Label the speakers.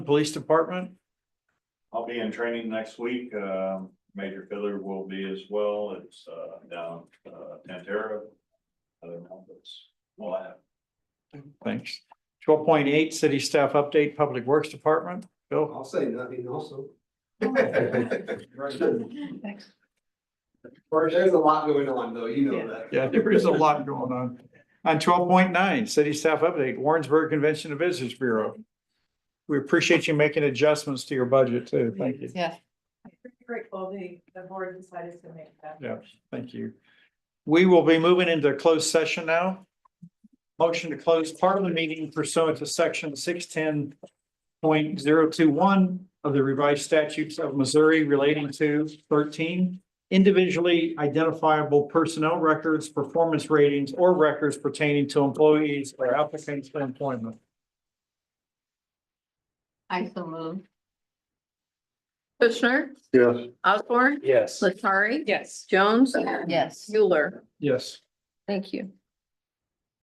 Speaker 1: Police Department?
Speaker 2: I'll be in training next week. Um, Major Filler will be as well. It's, uh, down, uh, Tantera. Other mountains. Well, I have.
Speaker 1: Thanks. Twelve point eight, City Staff Update, Public Works Department. Bill?
Speaker 3: I'll say nothing also. There's a lot going on though, you know that.
Speaker 1: Yeah, there is a lot going on. On twelve point nine, City Staff Update, Warrensburg Convention and Visitors Bureau. We appreciate you making adjustments to your budget too. Thank you.
Speaker 4: Yeah.
Speaker 5: I'm pretty grateful the, the board decided to make that.
Speaker 1: Yeah, thank you. We will be moving into closed session now. Motion to close part of the meeting pursuant to section six ten point zero two one of the revised statutes of Missouri relating to thirteen individually identifiable personnel records, performance ratings, or records pertaining to employees or applicants for employment.
Speaker 4: I so moved. Kushner,
Speaker 3: Yes.
Speaker 4: Osborne,
Speaker 6: Yes.
Speaker 4: Latari.
Speaker 5: Yes.
Speaker 4: Jones. Yes. Mueller.
Speaker 1: Yes.
Speaker 4: Thank you.